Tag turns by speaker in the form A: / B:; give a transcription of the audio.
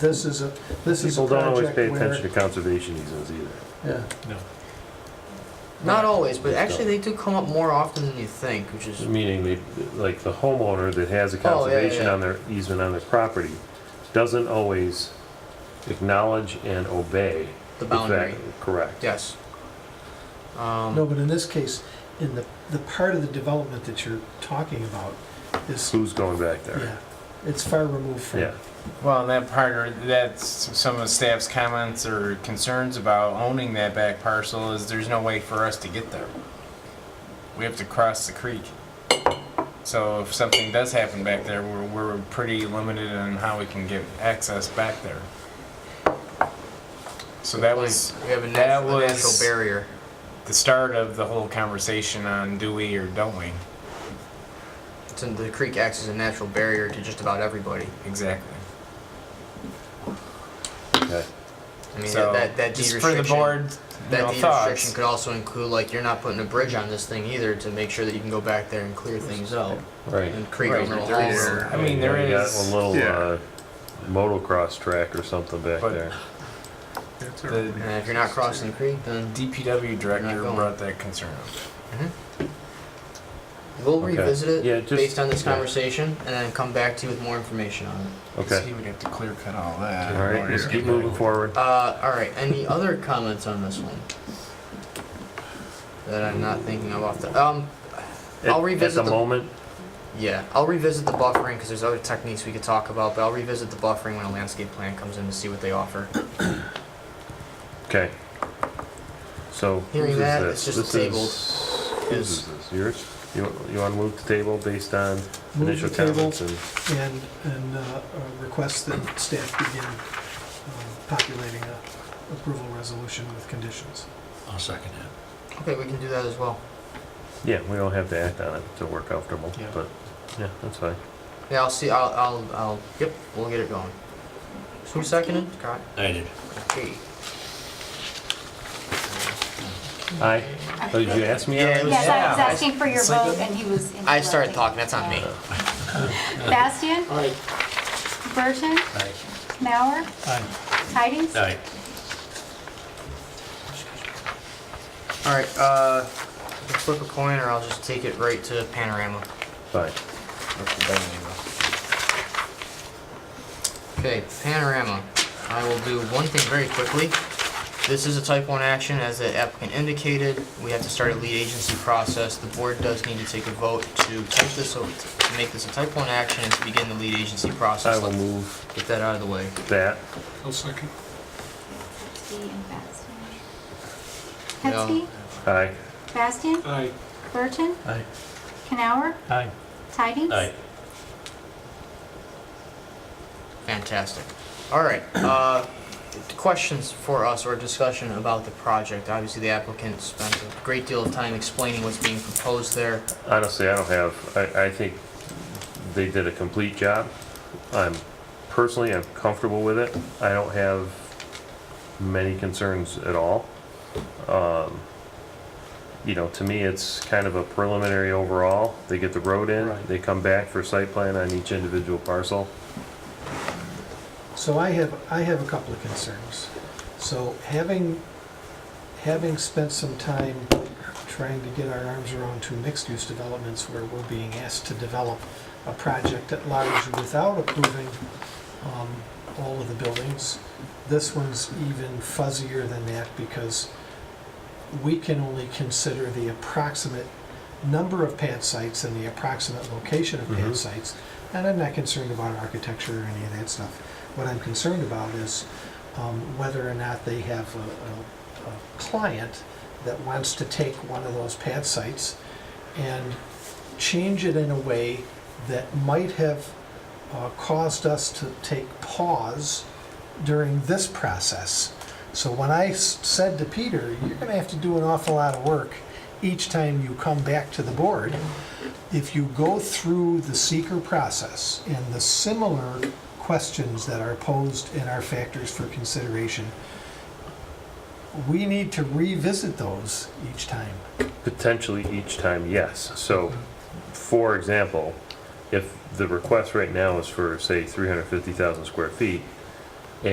A: This is a, this is a
B: People don't always
A: project
B: pay attention
A: where,
B: to conservation easements either.
A: yeah,
C: No.
D: Not always, but actually they do come up more often than you think, which is
B: Meaning, they- like, the homeowner that has a
D: yeah,
B: conservation
D: yeah.
B: on their, easement on their property doesn't always acknowledge and obey.
D: the
B: the fact-
D: boundary.
B: Correct.
D: Yes. Um,
A: no, but in this case, in the, the part of the development that you're talking about is,
B: Who's going back there?
A: yeah, it's far removed from.
B: Yeah,
E: Well, and that part, or that's some of the staff's comments or concerns about owning that back parcel is there's no way for us to get there. We have to cross the creek. So if something does happen back there, we're, we're pretty limited on how we can get access back there. So that was
D: we have a, nat-
E: that
D: a
E: was-
D: natural barrier.
E: the start of the whole conversation on do we or don't we?
D: It's in- the creek acts as a natural barrier to just about everybody.
E: Exactly.
B: okay.
D: I mean,
E: So
D: that, that deed
E: just
D: restriction.
E: for the board, you
D: that
E: know,
D: deed
E: thoughts.
D: restriction could also include like you're not putting a bridge on this thing either to make sure that you can go back there and clear things out.
B: Right.
D: And creek
E: Right,
D: over the
E: there
D: whole
E: is-
D: road.
E: I mean,
B: You
E: there
B: know, you got
E: is-
B: A little,
C: Yeah.
B: uh, motocross track or something back
E: But-
B: there.
E: The-
D: And if you're not crossing the creek, then
E: DPW
D: Not
E: director
D: going.
E: brought that concern up.
D: we'll
B: Okay.
D: revisit it
B: Yeah, just-
D: based on this
B: yeah.
D: conversation and then come back to you with more information on it.
E: So
B: Okay,
E: He would have to clear cut all that.
B: all right, let's
C: Yeah.
B: keep moving forward.
D: Uh, all right. Any other comments on this one that I'm not thinking of off the um?
B: At-
D: I'll revisit
B: At the
D: the-
B: moment,
D: Yeah, I'll revisit the buffering because there's other techniques we could talk about, but I'll revisit the buffering when a landscape plan comes in to see what they offer.
B: okay. So.
D: Hearing
B: whose is
D: that,
B: this?
D: it's just
B: This is- Whose
D: Is-
B: is this? Yours? You, you wanna move the table based on
A: Move the
B: initial
A: table.
B: comments and?
A: And, and, uh, uh, request that staff begin um, populating a approval resolution with conditions.
C: I'll second it.
D: Okay, we can do that as well.
B: Yeah, we don't have to act on it until we're comfortable,
D: Yeah.
B: but, yeah, that's fine.
D: Yeah, I'll see. I'll. I'll. I'll yep, we'll get it going. So who seconded? God.
C: I did.
D: Okay.
B: Aye. Oh, did you ask me?
D: Yeah, it was-
F: Yes, I was
E: Yeah.
F: asking for your vote and he was.
D: I started
F: interrupting.
D: talking. That's on me.
F: Bastian,
D: All right.
F: Burton,
C: Aye.
F: Mauer,
C: Aye.
F: Tidings.
C: Aye.
D: All right. Uh, let's flip a coin, or I'll just take it right to panorama.
B: Fine.
E: That's the bad name of
D: Okay, panorama. I will do one thing very quickly. This is a type one action, as the applicant indicated. We have to start a lead agency process. The board does need to take a vote to type this, o- to make this a type one action and to begin the lead agency
B: I
D: process.
B: will
D: Let's
B: move
D: Get that out of the way.
B: that.
F: Hetzke and Bastian.
D: No.
F: Hetzke,
B: Aye.
F: Bastian. Burton,
C: Aye.
F: Canower,
C: Aye.
F: Tidings.
C: Aye.
D: Fantastic. All right, uh, questions for us or discussion about the project? Obviously, the applicant spent a great deal of time explaining what's being proposed there.
B: Honestly, I don't have, I, I think they did a complete job. I'm, personally, I'm comfortable with it. I don't have many concerns at all. Um, You know, to me, it's kind of a preliminary overall. They get the road in,
C: Right.
B: they come back for site plan on each individual parcel.
A: So I have, I have a couple of concerns. So having, having spent some time trying to get our arms around two mixed-use developments where we're being asked to develop a project at large without approving um, all of the buildings, this one's even fuzzier than that because we can only consider the approximate number of pad sites and the approximate location of pad
B: Mhm.
A: sites. And I'm not concerned about architecture or any of that stuff. What I'm concerned about is um, whether or not they have a, a, a client that wants to take one of those pad sites and change it in a way that might have uh, caused us to take pause during this process. So when I s- said to Peter, you're going to have to do an awful lot of work each time you come back to the board. If you go through the seeker process and the similar questions that are posed in our factors for consideration, we need to revisit those each time.
B: Potentially each time, yes. So, for example, if the request right now is for, say, 350,000 square feet,